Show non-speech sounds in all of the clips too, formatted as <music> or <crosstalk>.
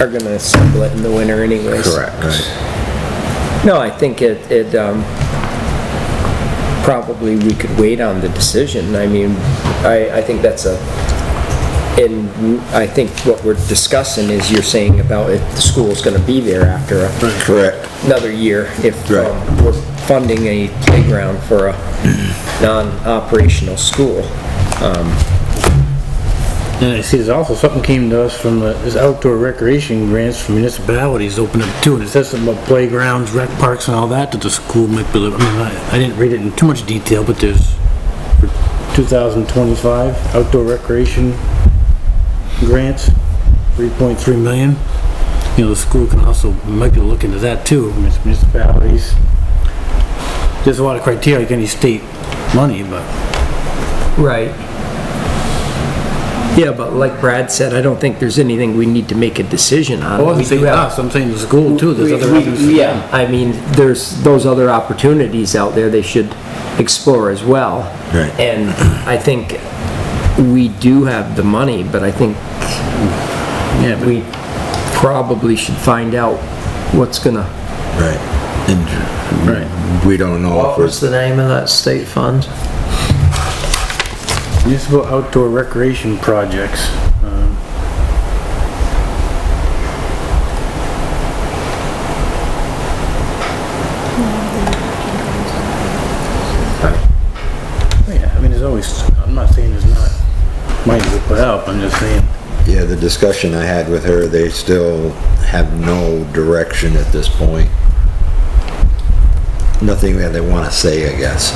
are gonna assemble it in the winter anyways. Correct. No, I think it, it, um, probably we could wait on the decision. I mean, I, I think that's a, and I think what we're discussing is you're saying about if the school's gonna be there after a- Correct. another year, if um, Right. we're funding a playground for a non-operational school. And I see there's also something came to us from the, this outdoor recreation grants from municipalities open up too, and it says something about playgrounds, rec parks and all that that the school might be, I mean, I, I didn't read it in too much detail, but there's for 2025 outdoor recreation grants, 3.3 million. You know, the school can also, might be looking to that too, from its municipalities. There's a lot of criteria, like any state money, but Right. Yeah, but like Brad said, I don't think there's anything we need to make a decision on. I wasn't We do saying have- us, I'm saying the school too, there's We- other we- avenues. for them. Yeah, I mean, there's those other opportunities out there they should explore as well. Right. And I think we do have the money, but I think Yeah, but- we probably should find out what's gonna, Right. And Right. we don't know What if was it's, the name of that state fund? Municipal outdoor recreation projects. um, Oh, Yeah, I mean, there's always, I'm not saying there's not money to put out, I'm just saying, yeah, the discussion I had with her, they still have no direction at this point. Nothing that they want to say, I guess.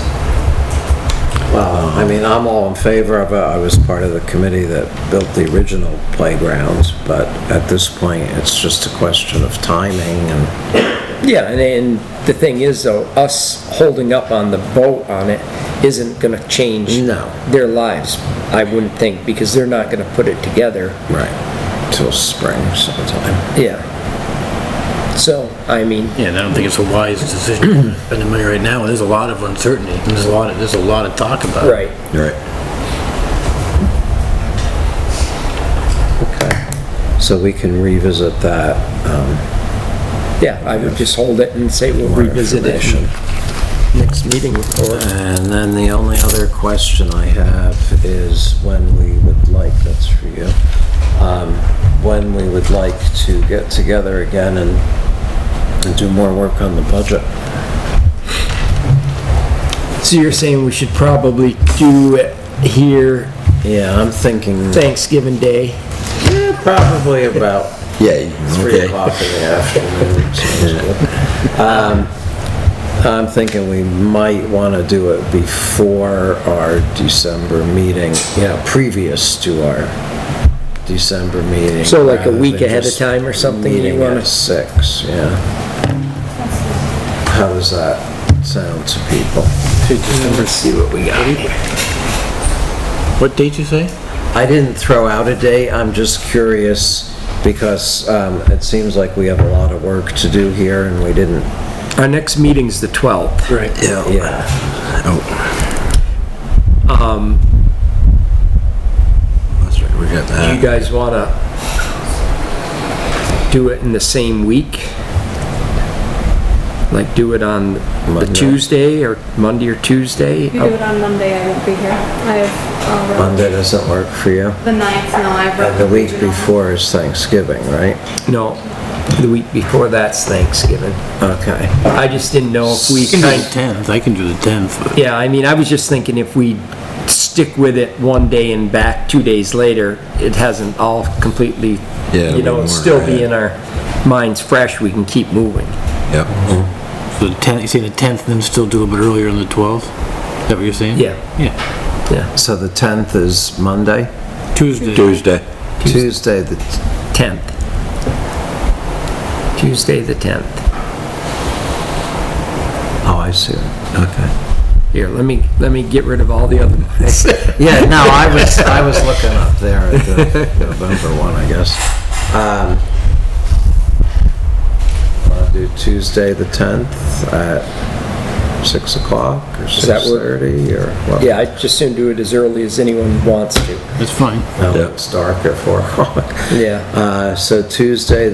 Well, I mean, I'm all in favor of it. I was part of the committee that built the original playgrounds, but at this point, it's just a question of timing and, yeah, and, and the thing is though, us holding up on the vote on it isn't gonna change No. their lives, I wouldn't think, because they're not gonna put it together. right, till spring sometime. Yeah. So, I mean, yeah, and I don't think it's a wise decision to spend the money right now, there's a lot of uncertainty, and there's a lot, of there's a lot of talk about it. right. Right. So we can revisit that. um, Yeah, I would just hold it and say we'll revisit it in next meeting or, And then the only other question I have is when we would like, that's for you, um, when we would like to get together again and and do more work on the budget. so you're saying we should probably do it here Yeah, I'm thinking Thanksgiving Day? probably about Yeah, three okay. o'clock in the afternoon. sounds good. Um, I'm thinking we might want to do it before our December meeting, yeah, previous to our December meeting. So like a rather week than ahead of just time or something you meeting wanna- at six, yeah. How does that sound to people? Let's see what we got. What date you say? I didn't throw out a date, I'm just curious because um, it seems like we have a lot of work to do here and we didn't Our next meeting's the 12th. Right. Yeah, Oh, Um, that's right, we got do you that. guys wanna do it in the same week? Like do it on the Monday. Tuesday or Monday or Tuesday? If you do it on Monday, I won't be here. I have, uh, Monday doesn't work for you. the ninth, no, I have. And the week before is Thanksgiving, right? No, the week before that's Thanksgiving. Okay. I just didn't know if we You can do kind the 10th, I can do the 10th, but- Yeah, I mean, I was just thinking if we stick with it one day and back two days later, it hasn't all completely, Yeah, it'll you know, be it'll more still be ahead. in our minds fresh, we can keep moving. Yep. So the 10th, you say the 10th, then still do a bit earlier on the 12th? Is that what you're saying? Yeah. Yeah. Yeah, So the 10th is Monday? Tuesday. Tuesday. Tuesday, the, 10th. Tuesday, the 10th. oh, I see. Okay. Here, let me, let me get rid of all <laughs> the other ones. Yeah, no, I was, <laughs> I was looking up there at the November one, I guess. Um, I'll do Tuesday, the 10th at 6 o'clock or that work? 6:30 or <laughs> what? Yeah, I'd just soon do it as early as anyone wants to. That's fine. No, Yep. It's dark at 4 o'clock. Yeah. Uh, So Tuesday,